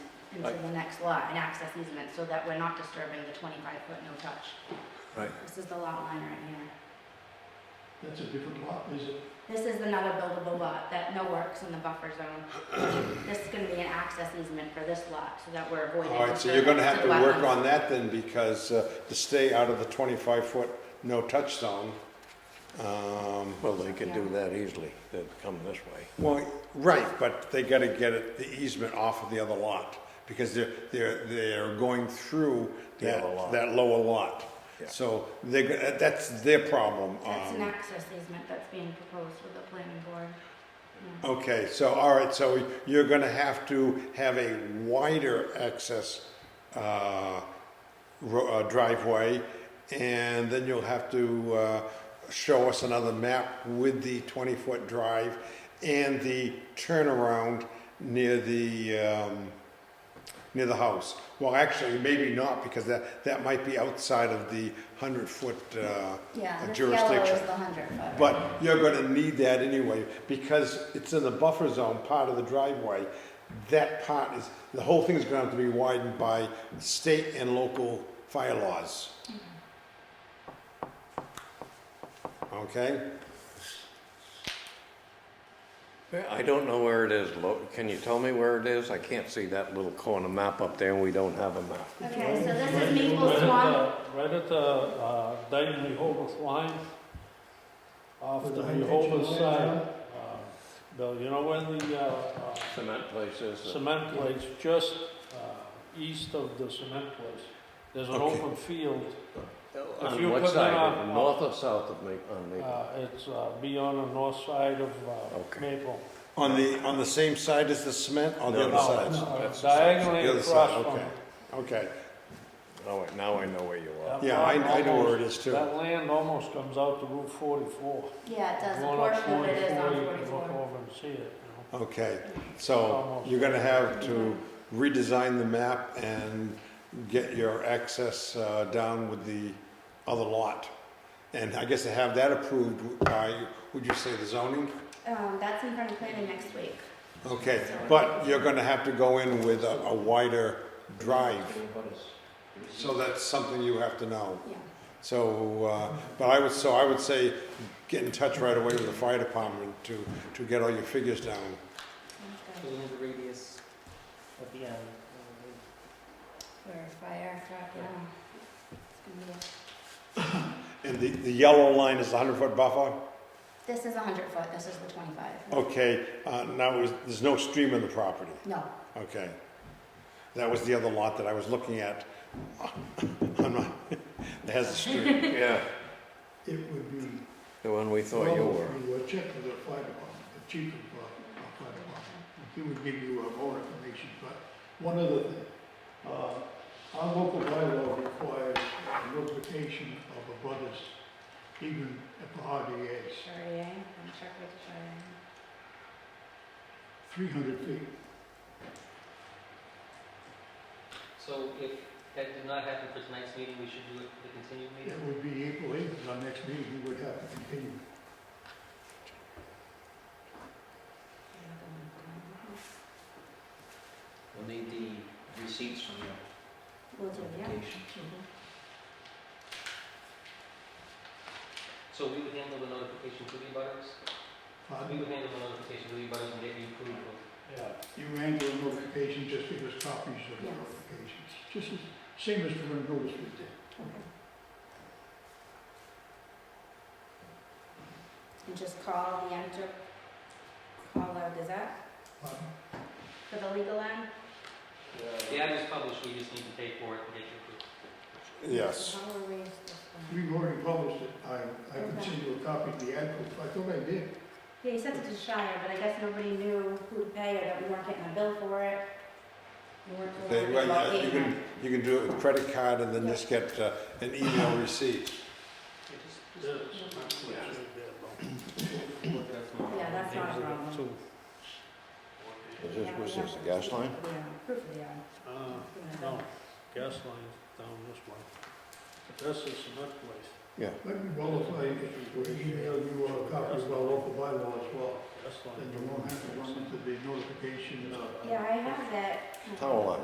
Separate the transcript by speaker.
Speaker 1: into the next lot, an access easement, so that we're not disturbing the 25-foot no-touch.
Speaker 2: Right.
Speaker 1: This is the lot line right here.
Speaker 3: That's a different lot, is it?
Speaker 1: This is another buildable lot that no works in the buffer zone. This is gonna be an access easement for this lot, so that we're avoiding.
Speaker 2: All right, so you're gonna have to
Speaker 1: disturbance of
Speaker 2: work
Speaker 1: wetlands.
Speaker 2: on that then, because uh, to stay out of the twenty-five foot no-touch zone. um,
Speaker 4: Well, they could do that easily, they'd come this way.
Speaker 2: Well, right, but they gotta get it, the easement off of the other lot, because they're, they're, they're going through
Speaker 4: The
Speaker 2: that,
Speaker 4: other lot.
Speaker 2: that lower lot.
Speaker 4: Yeah.
Speaker 2: So they, go- that's their problem.
Speaker 1: That's an
Speaker 2: um,
Speaker 1: access easement that's being proposed with the planning board. Yeah.
Speaker 2: Okay, so, all right, so you're gonna have to have a wider access, uh, ro- uh, driveway, and then you'll have to, uh, show us another map with the twenty-foot drive and the turnaround near the, um, near the house. Well, actually, maybe not, because that, that might be outside of the hundred-foot, uh,
Speaker 1: Yeah, this yellow
Speaker 2: jurisdiction.
Speaker 1: is the 100-foot.
Speaker 2: But you're gonna need that anyway, because it's in the buffer zone, part of the driveway. That part is, the whole thing's gonna have to be widened by state and local fire laws. Okay?
Speaker 4: Yeah, I don't know where it is, Lo- can you tell me where it is? I can't see that little corner map up there, and we don't have a map.
Speaker 1: Okay, so this
Speaker 5: Right
Speaker 1: is
Speaker 5: at-
Speaker 1: Maple
Speaker 5: right at
Speaker 1: Swamp.
Speaker 5: the- Right at the uh, Dayton Rehoboth line, off
Speaker 3: With
Speaker 5: the
Speaker 3: the high
Speaker 5: Rehoboth
Speaker 3: tension line
Speaker 5: side.
Speaker 3: down?
Speaker 5: uh, Bill, you know where the uh, uh,
Speaker 4: Cement places.
Speaker 5: cement place, just uh, east of the cement place, there's an
Speaker 2: Okay.
Speaker 5: open field. If
Speaker 4: On
Speaker 5: you
Speaker 4: what
Speaker 5: put
Speaker 4: side,
Speaker 5: that
Speaker 4: On
Speaker 5: on-
Speaker 4: the north or south of Ma- on Maple?
Speaker 5: Uh, It's uh, be on the north side of uh,
Speaker 4: Okay.
Speaker 5: Maple.
Speaker 2: On the, on the same side as the cement, on the
Speaker 4: No,
Speaker 2: other
Speaker 4: no,
Speaker 2: side?
Speaker 5: Uh,
Speaker 4: that's-
Speaker 2: The
Speaker 5: Diagonally
Speaker 2: other
Speaker 5: across
Speaker 2: side,
Speaker 5: from
Speaker 2: okay,
Speaker 5: it.
Speaker 2: okay.
Speaker 4: Oh, wait, now I know where you are.
Speaker 5: Yeah.
Speaker 2: Yeah, I, I know where it is too.
Speaker 5: That land almost comes out to Route 44.
Speaker 1: Yeah, it does, a
Speaker 5: Going up
Speaker 1: portion of it is
Speaker 5: 44,
Speaker 1: on
Speaker 5: you can Look
Speaker 1: 44.
Speaker 5: over and see it, you know.
Speaker 2: Okay, so you're gonna have to redesign the map and get your access uh, down with the other lot. And I guess to have that approved by, would you say the zoning?
Speaker 1: Um, that's in front of planning next week.
Speaker 2: Okay, but you're gonna have to go in with a a wider drive. So that's something you have to know.
Speaker 1: Yeah.
Speaker 2: So, uh, but I would, so I would say, get in touch right away with the fire department to, to get all your figures down.
Speaker 1: sounds
Speaker 6: Do we
Speaker 1: good.
Speaker 6: need a radius at the end?
Speaker 1: For fire truck, yeah. It's gonna be a-
Speaker 2: And the, the yellow line is the hundred foot buffer?
Speaker 1: This is 100 foot, this is the 25.
Speaker 2: Okay, uh, now, is- there's no stream in the property,
Speaker 1: No,
Speaker 2: okay? That was the other lot that I was looking at. I'm not, it has a stream.
Speaker 4: Yeah,
Speaker 3: It would be.
Speaker 4: the one we thought you were.
Speaker 3: Probably a check with the fire department, the chief of uh, our fire department. He would give you uh, more information, but one other thing. Uh, Our local bylaw requires a notification of a butters, even at the RDA's,
Speaker 1: Chardonnay, I'm sure with the Chardonnay.
Speaker 3: 300 feet.
Speaker 6: So if that did not happen for tonight's meeting, we should do it for the continued
Speaker 3: It
Speaker 6: meeting?
Speaker 3: would be April 8th, our next meeting, we would have to continue.
Speaker 7: We'll need the receipts from your
Speaker 1: Will do, yeah.
Speaker 7: application.
Speaker 6: So we would handle the notification to the abutters? We
Speaker 3: Pardon?
Speaker 6: would handle the notification to the abutters and get the approval.
Speaker 5: Yeah.
Speaker 3: You ran the notification, just give us copies of the
Speaker 1: Yes.
Speaker 3: notifications. Just as, same as the notice we did.
Speaker 1: And just call the enter, call the Gazette
Speaker 3: Pardon?
Speaker 1: for the legal end.
Speaker 6: The ad is published, we just need to pay for it and get it approved.
Speaker 2: Yes.
Speaker 1: How will we raise this one?
Speaker 3: We've already published it. I, I can send you a copy of the ad proof. I thought I did.
Speaker 1: Yeah, you sent it to Shire, but I guess nobody knew who to pay or that we weren't getting a bill for it. We weren't
Speaker 2: They-
Speaker 1: told
Speaker 2: well,
Speaker 1: about
Speaker 2: yeah, You
Speaker 1: payment.
Speaker 2: can, you can do it with credit card and then just get uh, an email
Speaker 6: Yeah,
Speaker 2: receipt.
Speaker 6: just- just-
Speaker 5: This is not what you did, though.
Speaker 6: look at it tomorrow.
Speaker 1: Yeah, that's not a problem.
Speaker 5: So,
Speaker 4: Is this,
Speaker 1: Yeah,
Speaker 4: was
Speaker 1: we
Speaker 4: this
Speaker 1: have
Speaker 4: the gas
Speaker 1: to-
Speaker 4: line?
Speaker 1: Yeah, proof of the, uh,
Speaker 5: uh,
Speaker 1: proof of the-
Speaker 5: no, gas line's down this way. But This is the nut place,
Speaker 3: Let me qualify if you would email you a copy of our local bylaw as well.
Speaker 5: gas line.
Speaker 3: Then you won't have to run into the notification, uh,
Speaker 1: Yeah, I have that.
Speaker 4: Power line,